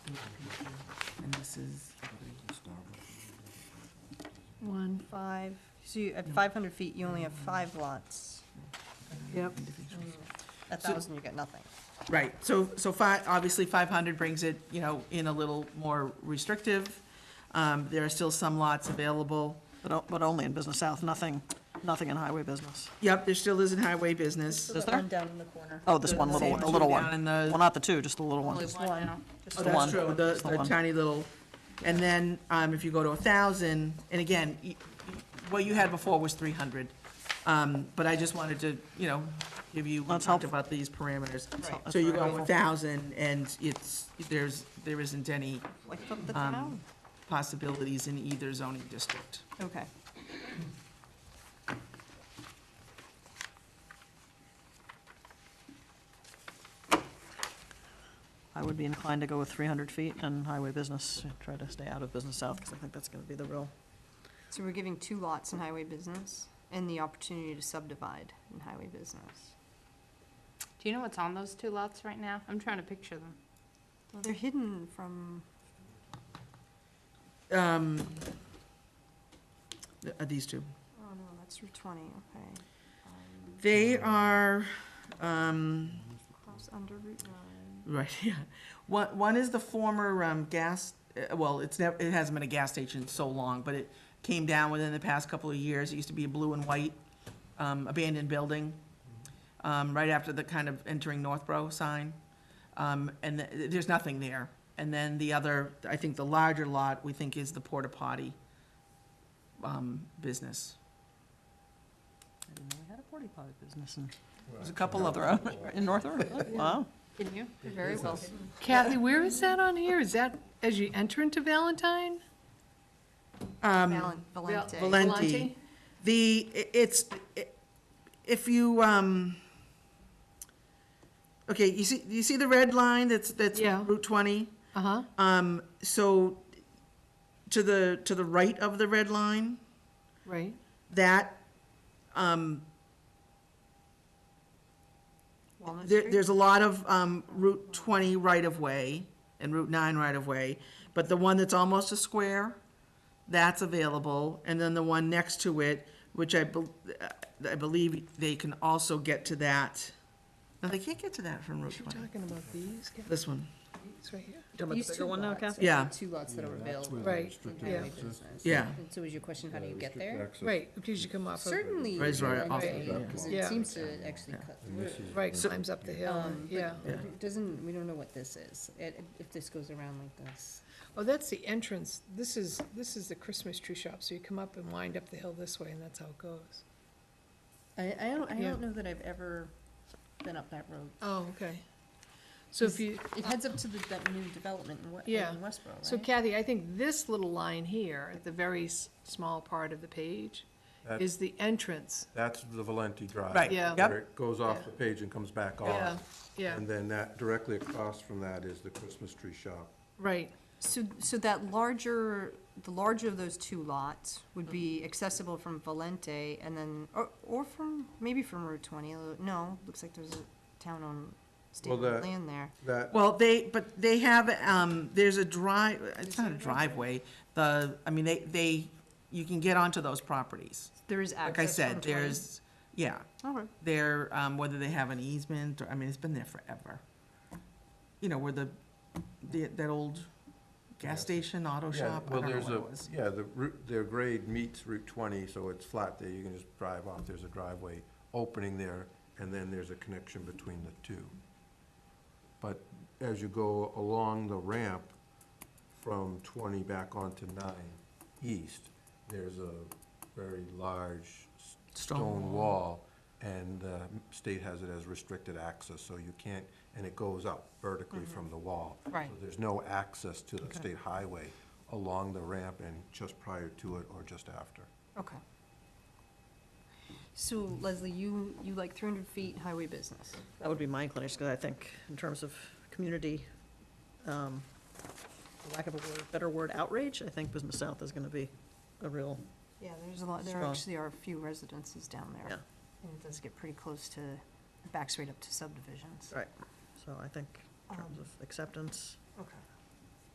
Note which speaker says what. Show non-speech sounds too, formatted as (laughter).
Speaker 1: This
Speaker 2: One,
Speaker 3: Five, so you, at five hundred feet, you only have five lots.
Speaker 2: yep,
Speaker 1: is.
Speaker 3: At
Speaker 1: So-
Speaker 3: thousand, you get nothing.
Speaker 1: Right, so, so five, obviously five hundred brings it, you know, in a little more restrictive. Um, there are still some lots available.
Speaker 4: But, o- but only in Business South, nothing, nothing in highway business.
Speaker 1: Yep, there still isn't highway business.
Speaker 4: Is there?
Speaker 3: down in the corner.
Speaker 4: Oh, this one little, one, the little
Speaker 1: Down
Speaker 4: one.
Speaker 1: in the-
Speaker 4: Well, not the two, just the little one.
Speaker 5: Only
Speaker 3: Just
Speaker 5: one
Speaker 3: one.
Speaker 5: now.
Speaker 3: Just
Speaker 1: Oh,
Speaker 4: the
Speaker 1: that's
Speaker 4: one.
Speaker 1: true, the,
Speaker 4: Just the
Speaker 1: the
Speaker 4: one.
Speaker 1: tiny little, and then, um, if you go to a thousand, and again, y- y- what you had before was three hundred. Um, but I just wanted to, you know, give you, we
Speaker 4: That's
Speaker 1: talked
Speaker 4: helpful.
Speaker 1: about these parameters.
Speaker 4: Right.
Speaker 1: So you go
Speaker 4: That's
Speaker 1: a
Speaker 4: very
Speaker 1: thousand, and it's, there's, there isn't any
Speaker 3: Like from the
Speaker 1: Um,
Speaker 3: town.
Speaker 1: possibilities in either zoning district.
Speaker 3: Okay.
Speaker 4: I would be inclined to go with three hundred feet and highway business, try to stay out of Business South, because I think that's gonna be the real.
Speaker 3: So we're giving two lots in highway business and the opportunity to subdivide in highway business.
Speaker 5: Do you know what's on those two lots right now? I'm trying to picture them.
Speaker 3: Well, they're hidden from,
Speaker 1: Um, th- uh, these two.
Speaker 3: oh no, that's Route twenty, okay. Um,
Speaker 1: They are, um,
Speaker 3: Cross under Route nine.
Speaker 1: right, (laughs) yeah. One, one is the former, um, gas, uh, well, it's never, it hasn't been a gas station in so long, but it came down within the past couple of years. It used to be a blue and white, um, abandoned building, um, right after the kind of entering Northborough sign. Um, and th- there's nothing there. And then the other, I think the larger lot, we think is the porta potty, um, business.
Speaker 4: I didn't know we had a porta potty business in.
Speaker 6: Well,
Speaker 4: There's a couple of them in North River. Wow.
Speaker 5: Can you?
Speaker 6: It
Speaker 3: Very well.
Speaker 6: is.
Speaker 2: Kathy, where is that on here? Is that as you enter into Valentine?
Speaker 1: Um,
Speaker 3: Valen- Valente.
Speaker 1: Valen- Valenti.
Speaker 2: Valenti?
Speaker 1: The, i- it's, i- if you, um, okay, you see, you see the red line that's, that's
Speaker 2: Yeah.
Speaker 1: Route twenty?
Speaker 2: Uh-huh,
Speaker 1: Um, so, to the, to the right of the red line,
Speaker 2: right.
Speaker 1: that, um,
Speaker 3: Walnut
Speaker 1: there,
Speaker 3: Street?
Speaker 1: there's a lot of, um, Route twenty right-of-way and Route nine right-of-way, but the one that's almost a square, that's available, and then the one next to it, which I bel- uh, I believe they can also get to that. No, they can't get to that from Route twenty,
Speaker 2: Talking about these guys
Speaker 1: this one,
Speaker 2: right here.
Speaker 4: Talking about the bigger one now, Kathy?
Speaker 1: yeah,
Speaker 7: Two lots that are
Speaker 6: Yeah, that's
Speaker 7: available.
Speaker 6: where the
Speaker 2: Right,
Speaker 6: restricted
Speaker 2: yeah.
Speaker 6: access-
Speaker 1: yeah,
Speaker 7: And so is your question, how do you get
Speaker 6: restricted
Speaker 7: there?
Speaker 6: access.
Speaker 2: Right, because you come off of,
Speaker 7: Certainly.
Speaker 1: Right, it's right
Speaker 7: along
Speaker 1: off
Speaker 7: the
Speaker 2: the
Speaker 7: way,
Speaker 6: back
Speaker 7: Because
Speaker 2: Yeah.
Speaker 7: it seems to actually
Speaker 1: Yeah.
Speaker 7: cut
Speaker 6: And
Speaker 7: through.
Speaker 6: this is-
Speaker 2: right, climbs up the hill,
Speaker 7: Um,
Speaker 2: and-
Speaker 7: but
Speaker 2: yeah.
Speaker 7: it Doesn't, we don't know what this is, It- if this goes around like this.
Speaker 2: Oh, that's the entrance. This is, this is the Christmas tree shop, so you come up and wind up the hill this way, and that's how it goes.
Speaker 7: I, I don't, I
Speaker 2: Yeah.
Speaker 7: don't know that I've ever been up that road.
Speaker 2: Oh, okay. So if you,
Speaker 7: It heads up to the, that new development in West,
Speaker 2: Yeah.
Speaker 7: in Westboro, right?
Speaker 2: so Kathy, I think this little line here, at the very s- small part of the page,
Speaker 6: That-
Speaker 2: is the entrance.
Speaker 6: That's the Valenti Drive.
Speaker 1: Right,
Speaker 2: Yeah.
Speaker 6: Where it goes off the page and comes back
Speaker 2: Yeah,
Speaker 6: on.
Speaker 2: yeah,
Speaker 6: And then that, directly across from that is the Christmas tree shop.
Speaker 2: right.
Speaker 3: So, so that larger, the larger of those two lots would
Speaker 7: Mm-hmm.
Speaker 3: be accessible from Valente and then, or, or from, maybe from Route twenty, although- no, looks like there's a town on state
Speaker 6: Well,
Speaker 3: road
Speaker 6: the-
Speaker 3: land there.
Speaker 6: That,
Speaker 1: Well, they, but they have, um, there's a drive, it's not a driveway, the, I mean, they, they, you can get onto those properties.
Speaker 3: There is access
Speaker 1: Like I
Speaker 3: from
Speaker 1: said,
Speaker 3: 20.
Speaker 1: there's, yeah,
Speaker 3: Okay.
Speaker 1: there, um, whether they have an easement, or, I mean, it's been there forever. You know, where the, the, that old gas
Speaker 6: Yes.
Speaker 1: station, auto
Speaker 6: yeah,
Speaker 1: shop, I
Speaker 6: well,
Speaker 1: don't know
Speaker 6: there's
Speaker 1: what
Speaker 6: a,
Speaker 1: it was.
Speaker 6: yeah, the route, their grade meets Route twenty, so it's flat there. You can just drive off. There's a driveway opening there, and then there's a connection between the two. But as you go along the ramp from twenty back onto nine east, there's a very large s-
Speaker 1: Stone
Speaker 6: stone
Speaker 1: wall.
Speaker 6: wall, and the state has it as restricted access, so you can't, and it goes up vertically
Speaker 1: Mm-hmm.
Speaker 6: from the wall.
Speaker 3: Right.
Speaker 6: So there's no access to the state highway along the ramp and just prior to it or just after.
Speaker 3: Okay. So Leslie, you, you like three hundred feet highway business.
Speaker 4: That would be my inclination, because I think in terms of community, um, for lack of a word, better word, outrage, I think Business South is gonna be a real,
Speaker 3: Yeah, there's a lot, there
Speaker 4: Strong.
Speaker 3: actually are a few residences down there.
Speaker 4: Yeah.
Speaker 3: And it does get pretty close to, backs right up to subdivisions.
Speaker 4: right, so I think in terms
Speaker 3: Um,
Speaker 4: of acceptance.
Speaker 3: Okay.